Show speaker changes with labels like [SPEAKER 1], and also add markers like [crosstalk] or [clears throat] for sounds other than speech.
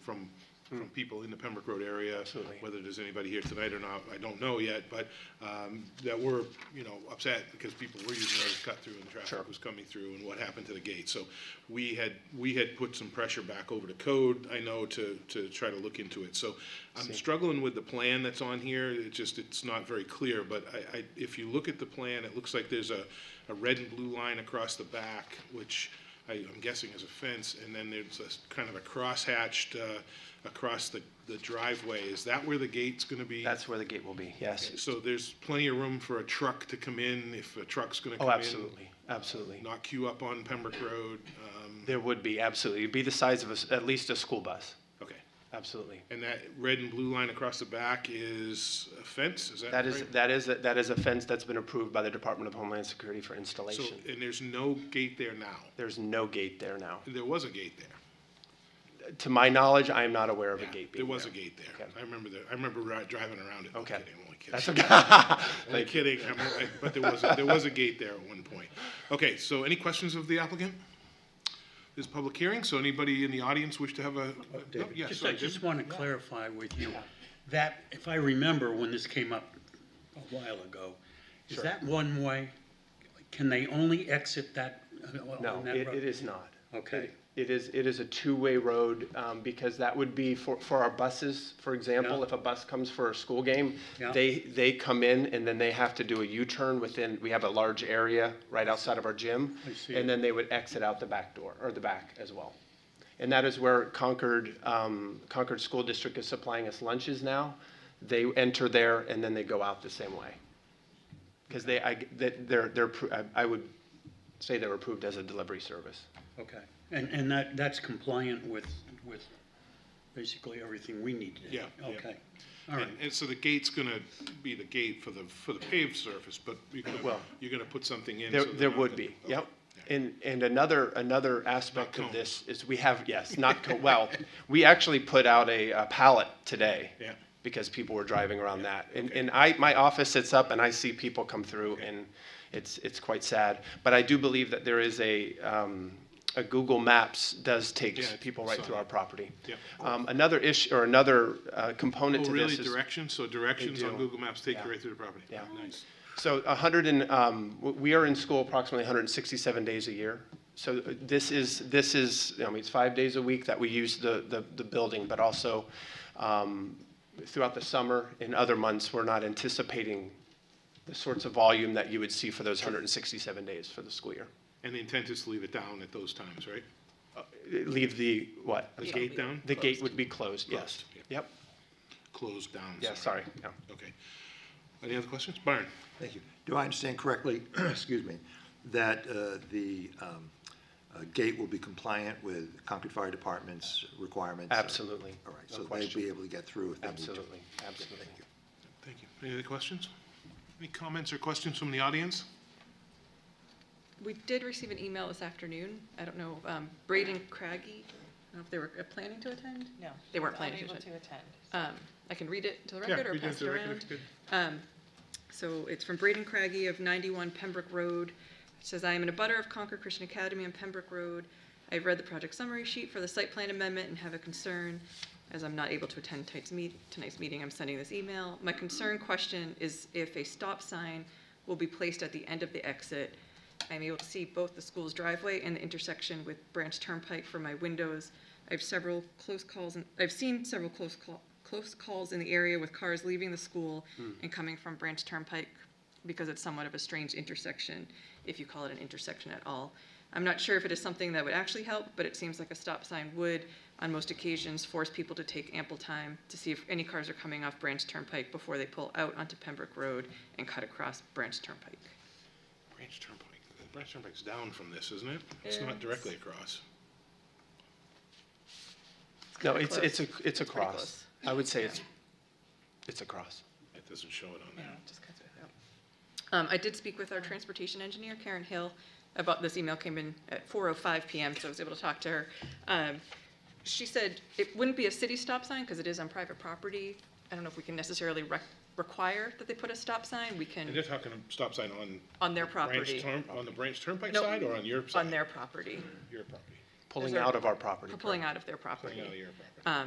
[SPEAKER 1] from, from people in the Pembroke Road area.
[SPEAKER 2] Hmm. Absolutely.
[SPEAKER 1] Whether there's anybody here tonight or not, I don't know yet, but um, that were, you know, upset because people were using those cut through and
[SPEAKER 2] Sure.
[SPEAKER 1] traffic was coming through and what happened to the gate. So we had, we had put some pressure back over to code, I know, to, to try to look into it. So I'm struggling with the plan that's on here, it just, it's not very clear, but I, I, if you look at the plan, it looks like there's a, a red and blue line across the back, which I, I'm guessing is a fence, and then there's a, s- kind of a crosshatched, uh, across the, the driveway. Is that where the gate's gonna be?
[SPEAKER 2] That's where the gate will be, yes.
[SPEAKER 1] So there's plenty of room for a truck to come in, if a truck's gonna come
[SPEAKER 2] Oh,
[SPEAKER 1] in?
[SPEAKER 2] absolutely, absolutely.
[SPEAKER 1] not queue up on Pembroke Road. um,
[SPEAKER 2] There would be, absolutely. It'd be the size of a s at least a school bus,
[SPEAKER 1] Okay.
[SPEAKER 2] absolutely.
[SPEAKER 1] And that red and blue line across the back is a fence, is that right?
[SPEAKER 2] That is, that is, that is a fence that's been approved by the Department of Homeland Security for
[SPEAKER 1] So,
[SPEAKER 2] installation.
[SPEAKER 1] and there's no gate there now.
[SPEAKER 2] There's no gate there now.
[SPEAKER 1] There was a gate there.
[SPEAKER 2] To my knowledge, I am not aware of a
[SPEAKER 1] Yeah,
[SPEAKER 2] gate being
[SPEAKER 1] There was a
[SPEAKER 2] there.
[SPEAKER 1] gate there.
[SPEAKER 2] Okay.
[SPEAKER 1] I remember that, I remember ri- driving around it. I'm
[SPEAKER 2] Okay.
[SPEAKER 1] kidding, I'm only kidding.
[SPEAKER 2] That's okay. [laughs]
[SPEAKER 1] Only kidding, I'm only- but there was, a- there was a gate there at one point. Okay, so any questions of the applicant? This is public hearing, so anybody in the audience wish to have
[SPEAKER 2] Oh,
[SPEAKER 1] a? no, yeah,
[SPEAKER 3] Just, I
[SPEAKER 1] sorry,
[SPEAKER 3] just
[SPEAKER 1] David.
[SPEAKER 3] want to clarify with you, that, if I remember when this came up a while ago, is that one way? Can they only exit that, uh,
[SPEAKER 2] No,
[SPEAKER 3] on that
[SPEAKER 2] it, it
[SPEAKER 3] road?
[SPEAKER 2] is not.
[SPEAKER 3] Okay.
[SPEAKER 2] It is, it is a two-way road, um, because that would be for, for our buses, for example,
[SPEAKER 3] Yeah.
[SPEAKER 2] if a bus comes for a school game,
[SPEAKER 3] Yeah.
[SPEAKER 2] they, they come in and then they have to do a U-turn within, we have a large area right outside of our gym.
[SPEAKER 3] I see.
[SPEAKER 2] And then they would exit out the back door, or the back as well. And that is where Concord, um, Concord School District is supplying us lunches now. They enter there and then they go out the same way. Because they, I, that, they're, they're, appro- I, I would say they're approved as a delivery service.
[SPEAKER 3] Okay, and, and that, that's compliant with, with basically everything we need to do?
[SPEAKER 1] Yeah, yeah.
[SPEAKER 3] Okay, all right,
[SPEAKER 1] And, and so the gate's gonna be the gate for the, for the paved surface, but you're gonna,
[SPEAKER 2] Well,
[SPEAKER 1] you're gonna put something in.
[SPEAKER 2] There,
[SPEAKER 1] so they're
[SPEAKER 2] there
[SPEAKER 1] not
[SPEAKER 2] would
[SPEAKER 1] gonna-
[SPEAKER 2] be,
[SPEAKER 1] okay.
[SPEAKER 2] yep. And, and another, another aspect
[SPEAKER 1] Not
[SPEAKER 2] of this is we have, yes,
[SPEAKER 1] [laughs]
[SPEAKER 2] not, co- well, we actually put out a uh, pallet today.
[SPEAKER 1] Yeah.
[SPEAKER 2] Because people were driving around that. And,
[SPEAKER 1] okay.
[SPEAKER 2] and I, my office sits up and I see people come through and it's, it's quite sad. But I do believe that there is a, um, a Google Maps does take
[SPEAKER 1] Yeah, I
[SPEAKER 2] people right
[SPEAKER 1] saw
[SPEAKER 2] through
[SPEAKER 1] that.
[SPEAKER 2] our property.
[SPEAKER 1] Yeah.
[SPEAKER 2] Um, another issue, or another, uh, component
[SPEAKER 1] Oh,
[SPEAKER 2] to this
[SPEAKER 1] really?
[SPEAKER 2] is.
[SPEAKER 1] Directions? So directions on
[SPEAKER 2] do.
[SPEAKER 1] Google Maps take
[SPEAKER 2] Yeah.
[SPEAKER 1] you right through the property?
[SPEAKER 2] Yeah.
[SPEAKER 1] Nice.
[SPEAKER 2] So a hundred and, um, w- we are in school approximately hundred and sixty-seven days a year. So uh, this is, this is, I mean, it's five days a week that we use the, the, the building, but also, um, throughout the summer and other months, we're not anticipating the sorts of volume that you would see for those hundred and sixty-seven days for the school year.
[SPEAKER 1] And the intent is to leave it down at those times, right?
[SPEAKER 2] Uh, Leave the, what?
[SPEAKER 1] The gate down?
[SPEAKER 2] The gate would be closed, yes.
[SPEAKER 1] Closed,
[SPEAKER 2] Yep,
[SPEAKER 1] Closed down.
[SPEAKER 2] yeah, sorry, yeah.
[SPEAKER 1] Okay. Any other questions? Byron?
[SPEAKER 4] Thank you. Do I understand correctly, [clears throat] excuse me, that uh, the um, uh, gate will be compliant with Concord Fire Department's requirements?
[SPEAKER 2] Absolutely.
[SPEAKER 4] All right,
[SPEAKER 2] No
[SPEAKER 4] so they'll
[SPEAKER 2] question.
[SPEAKER 4] be able to get through if they need to.
[SPEAKER 2] Absolutely, absolutely.
[SPEAKER 1] Thank you. Any other questions? Any comments or questions from the audience?
[SPEAKER 5] We did receive an email this afternoon. I don't know, um, Braden Craggy, I don't know if they were uh, planning to attend?
[SPEAKER 6] No.
[SPEAKER 5] They weren't
[SPEAKER 6] he's
[SPEAKER 5] planning to
[SPEAKER 6] Unable to
[SPEAKER 5] attend.
[SPEAKER 6] attend.
[SPEAKER 5] Um, I can read it to the
[SPEAKER 1] Yeah,
[SPEAKER 5] record or
[SPEAKER 1] read it
[SPEAKER 5] pass
[SPEAKER 1] to
[SPEAKER 5] it
[SPEAKER 1] the record.
[SPEAKER 5] around.
[SPEAKER 1] Good.
[SPEAKER 5] Um, So it's from Braden Craggy of 91 Pembroke Road. It says, "I am in a butter of Concord Christian Academy on Pembroke Road. I've read the project summary sheet for the site plan amendment and have a concern. As I'm not able to attend tonight's meet- tonight's meeting, I'm sending this email. My concern question is if a stop sign will be placed at the end of the exit. I'm able to see both the school's driveway and the intersection with Branch Turnpike from my windows. I've several close calls, and I've seen several close call, close calls in the area with cars leaving the school and coming from Branch Turnpike because it's somewhat of a strange intersection, if you call it an intersection at all. I'm not sure if it is something that would actually help, but it seems like a stop sign would, on most occasions, force people to take ample time to see if any cars are coming off Branch Turnpike before they pull out onto Pembroke Road and cut across Branch Turnpike.
[SPEAKER 1] Branch Turnpike, The Branch Turnpike's down from this, isn't it? It's not directly across.
[SPEAKER 2] No,
[SPEAKER 5] kinda
[SPEAKER 2] it's,
[SPEAKER 5] close.
[SPEAKER 2] it's a, it's a
[SPEAKER 5] pretty
[SPEAKER 2] cross.
[SPEAKER 5] close.
[SPEAKER 2] I would say it's, it's a cross.
[SPEAKER 1] It doesn't show it on
[SPEAKER 5] Yeah,
[SPEAKER 1] there.
[SPEAKER 5] just cuts it out. Um, I did speak with our transportation engineer, Karen Hill, about this email came in at four oh five PM, so I was able to talk to her. Um, she said it wouldn't be a city stop sign because it is on private property. I don't know if we can necessarily rec- require that they put a stop sign. We
[SPEAKER 1] And
[SPEAKER 5] can,
[SPEAKER 1] they're talking a stop sign on.
[SPEAKER 5] on their
[SPEAKER 1] Branch
[SPEAKER 5] property.
[SPEAKER 1] Turn- On the Branch Turnpike
[SPEAKER 5] No,
[SPEAKER 1] side or on your side?
[SPEAKER 5] On their property,
[SPEAKER 1] Your property.
[SPEAKER 2] Pulling
[SPEAKER 5] there-
[SPEAKER 2] out of our property.
[SPEAKER 5] for pulling
[SPEAKER 2] correct?
[SPEAKER 5] out of their property.
[SPEAKER 1] Coming out of your property.